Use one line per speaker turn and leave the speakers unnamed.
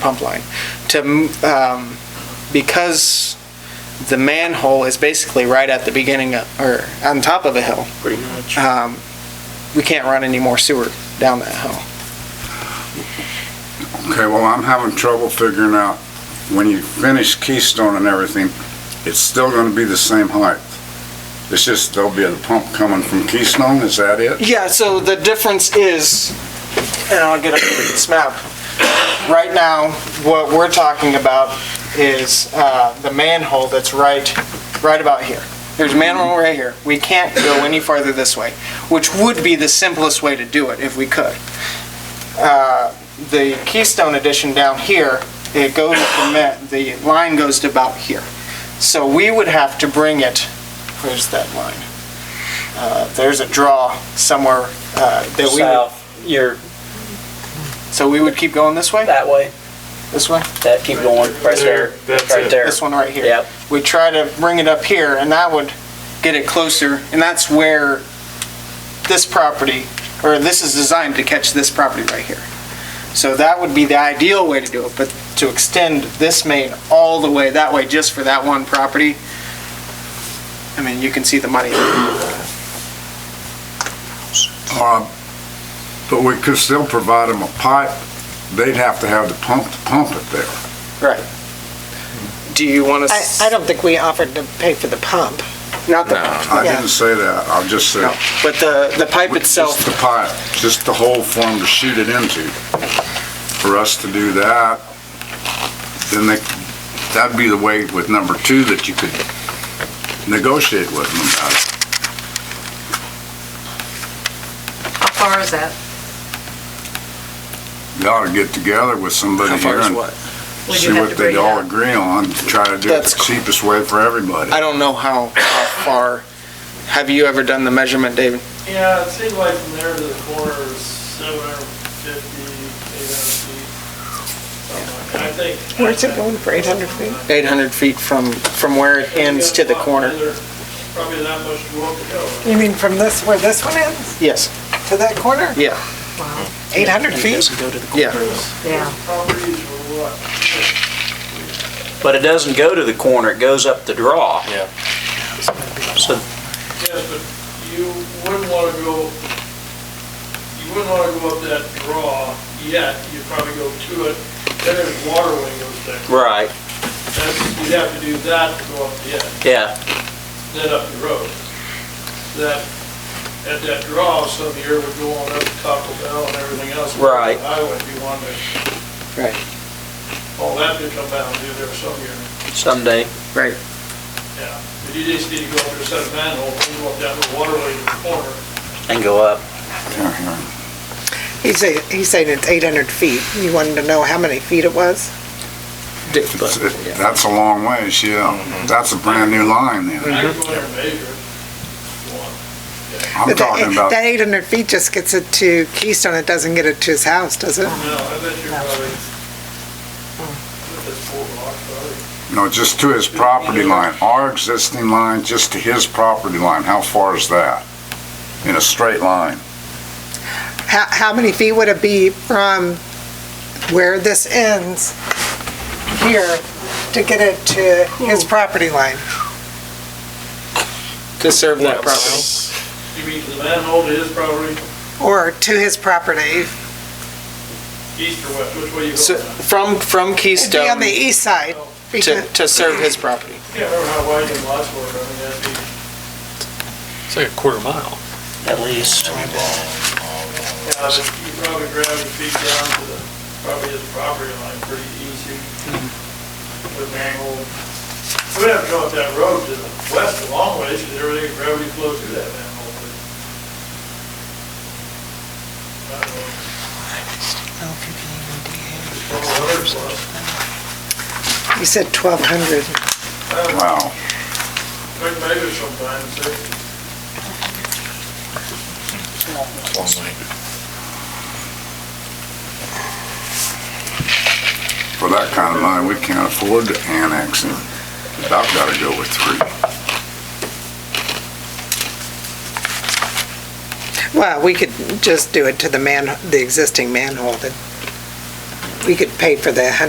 pump line. To, um, because the manhole is basically right at the beginning of, or on top of a hill,
pretty much.
um, we can't run any more sewer down that hill.
Okay, well, I'm having trouble figuring out, when you finish Keystone and everything, it's still gonna be the same height. It's just there'll be a pump coming from Keystone, is that it?
Yeah, so the difference is, and I'll get up this map. Right now, what we're talking about is uh, the manhole that's right, right about here. There's a manhole right here. We can't go any farther this way, which would be the simplest way to do it if we could. Uh, The Keystone addition down here, it goes, the ma- the line goes to about here. So we would have to bring it, where's that line? Uh, There's a draw somewhere uh, that we would
South, you're
so we would keep going this way?
that way,
This way?
that keep going, right there, right there.
This one right here?
Yep,
We try to bring it up here, and that would get it closer, and that's where this property, or this is designed to catch this property right here. So that would be the ideal way to do it, but to extend this main all the way that way just for that one property, I mean, you can see the money.
Uh, But we could still provide them a pipe, they'd have to have the pump to pump it there.
Do you want
I, I
to,
don't think we offered to pay for the pump.
not the,
I didn't say that, I just said.
no, but the, the pipe
Just
itself,
the pipe, just the hole for them to shoot it into. For us to do that, then they, that'd be the way with number two that you could negotiate with them about it.
How far is that?
You ought to get together with somebody
how
here
far is
and
what?
Would you
see
have
what
to
they
bring it
all
up?
agree on, and try to do it
That's
the cheapest way for everybody.
I don't know how, how far, have you ever done the measurement, David?
Yeah, it seems like from there to the corner is seven hundred fifty, eight hundred feet. something like that. I think.
Where's it going for 800 feet?
800 feet from, from where it ends to the corner?
Probably that much more to go.
You mean from this, where this one ends,
Yes,
to that corner?
Yeah.
800 feet?
yeah.
Yeah.
Properties were what,
but it doesn't go to the corner, it goes up the draw. Yeah. So
yes, but you wouldn't wanna go, you wouldn't wanna go up that draw yet, you'd probably go to it, then there's water when it goes there.
Right,
That's, you'd have to do that to go up the edge.
yeah,
then up the road. That, at that draw, some of the air would go on up to Taco Bell and everything else.
Right.
I would be wondering.
Right.
All that could come down through there some year,
someday.
yeah. But you just need to go under a set of manhole, and go up down the water lane in the corner.
Mm-hmm.
And go up.
Yeah, yeah.
He's saying, he's saying it's 800 feet. You wanted to know how many feet it was?
It's- it- That's a long ways, yeah. That's a brand new line then.
I could go in there and measure it. One.
I'm
But that-
talking about,
That 800 feet just gets it to Keystone, it doesn't get it to his house, does it?
No, I bet you're probably, with this four block, probably.
no, just to his property line, our existing line, just to his property line, how far is that? In a straight line?
How, how many feet would it be from where this ends here to get it to his property line?
To serve that property.
You mean to the manhole to his property,
Or to his property?
east or west, which way you
So
go?
From, from
It'd be
Keystone
on the east side.
to,
because-
to serve his property.
Can't remember how wide the lots were, I mean, that'd be.
It's like a quarter mile.
At least.
Yeah, but you probably grab your feet down to the, probably his property line pretty easy. With manhole. We'd have to go up that road to the west a long ways, because everything gravity flows through that manhole. but- I don't know,
E
it's a hundred plus.
You said 1,200.
I don't know,
Wow.
we can measure sometimes, so
For that kind of money, we can't afford to annex it. About gotta go with three.
Well, we could just do it to the man, the existing manhole that, we could pay for the 100